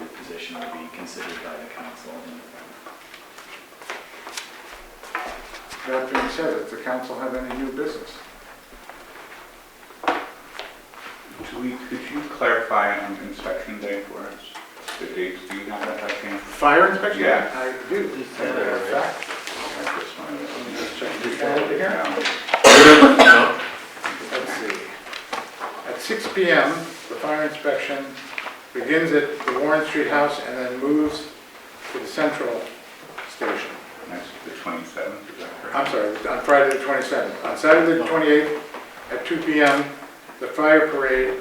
application to be considered by the council. That being said, does the council have any new business? Julie, could you clarify on inspection day for us? The dates, do you have that by chance? Fire inspection? Yeah. I do. Matter of fact, I just wanted to- I'm just checking. You got it here? Yeah. Let's see. At 6 PM, the fire inspection begins at the Warren Street House and then moves to the central station. That's the 27th, is that correct? I'm sorry, on Friday the 27th. On Saturday the 28th, at 2 PM, the fire parade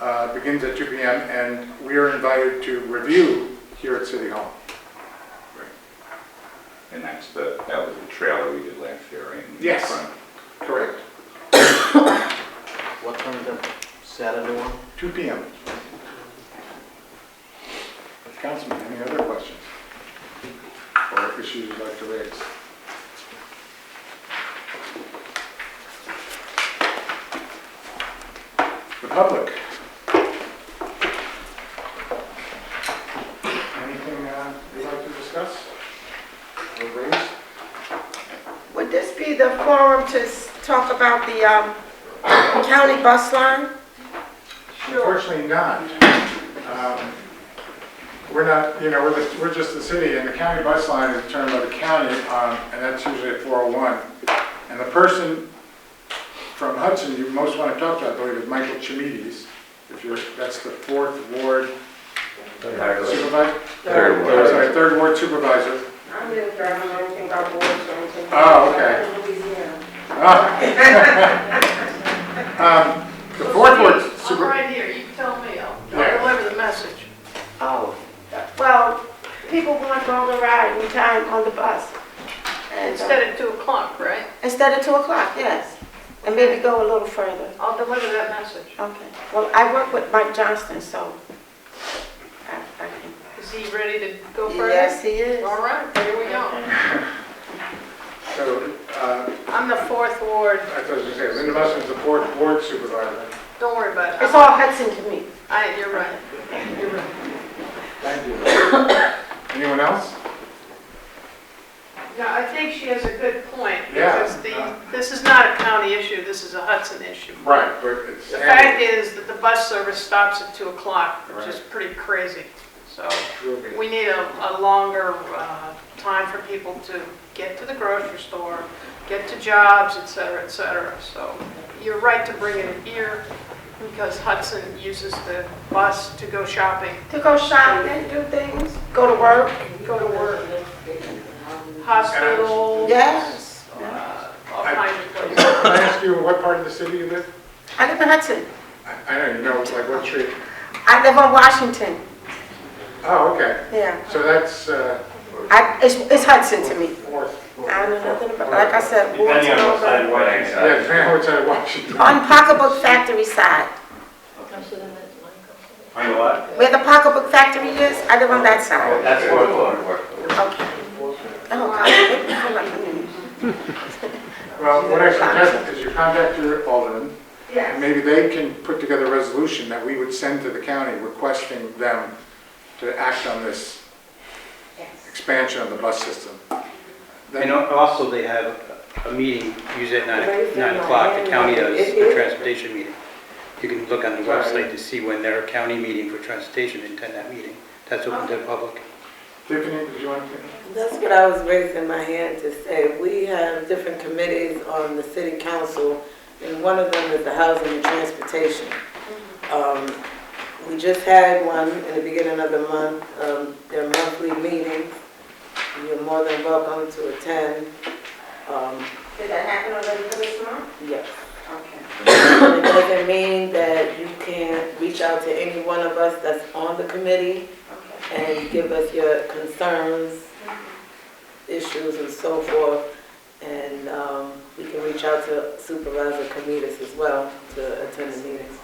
uh, begins at 2 PM, and we are invited to review here at City Hall. And that's the, that was the trailer we did last year, right? In Yes. front. Correct. What time is that? Saturday one? 2 PM. Councilman, any other questions? Or issues you'd like to raise? The public? Anything uh, you'd like to discuss or raise? Would this be the forum to s- talk about the um, county bus line? Unfortunately not. Um, We're not, you know, we're just, we're just the city, and the county bus line is determined by the county, um, and that's usually at 401. And the person from Hudson you most want to talk to, I believe, is Michael Chimides, if you're, that's the fourth ward supervisor? Third ward. Sorry, third ward supervisor. I'm really driving, I don't think I'll board, so I don't think. Oh, okay. I'm in Louisiana. Ah. Um, The fourth ward I'm super, right here, you tell me, I'll Yeah. I'll deliver the message. Oh, well, people want longer ride in time on the bus. And so- Instead of 2 o'clock, right? Instead of two o'clock, yes. And maybe go a little further. I'll deliver that message. Okay. Well, I work with Mike Johnston, so. I- I can- Is he ready to go further? Yes, he is. All right, here we go. so, uh, I'm the fourth ward, I was going to say, Linda Muslin's the fourth ward supervisor. don't worry about It's it. all Hudson to me. I, you're right. Thank you. Anyone else? No, I think she has a good point. Yeah. Because the, this is not a county issue, this is a Hudson issue. Right, but it's. The fact is that the bus service stops at 2 o'clock, which is Right. pretty crazy. So Will be. we need a, a longer uh, time for people to get to the grocery store, get to jobs, et cetera, et cetera. So you're right to bring it here because Hudson uses the bus to go shopping, To go shopping, do things, go to work. go to work, hospital, Yes. uh, all kinds of places. Can I ask you what part of the city you live? I live in Hudson. I I don't even know, it's like what street? I live on Washington. Oh, okay, Yeah. so that's uh, I, it's, it's Hudson to me. fourth. I don't know nothing about, like I said, Ward's over. Yeah, it's Van Horn side of Washington. On Pocketbook Factory side, On what? where the Pocketbook Factory is, I live on that side. That's fourth ward. Okay. Oh, God, it feel like me. Well, what I suggest is you contact your alderman, and maybe they can put together a resolution that we would send to the county requesting them to act on this expansion of the bus system. And al- also, they have a meeting, usually at nine nine o'clock, the county does a transportation meeting. You can look on the website to see when their county meeting for transportation, attend that meeting. That's open to the public. Tiffany, did you want to? That's what I was raising my hand to say. We have different committees on the city council, and one of them is the housing and transportation. Um, We just had one in the beginning of the month, um, their monthly meeting. You're more than welcome to attend. Um, Did that happen already for this month? Yes. Okay. It doesn't mean that you can reach out to any one of us that's on the committee Okay. and give us your concerns, issues and so forth. And um, we can reach out to Supervisor Comitas as well to attend the meetings.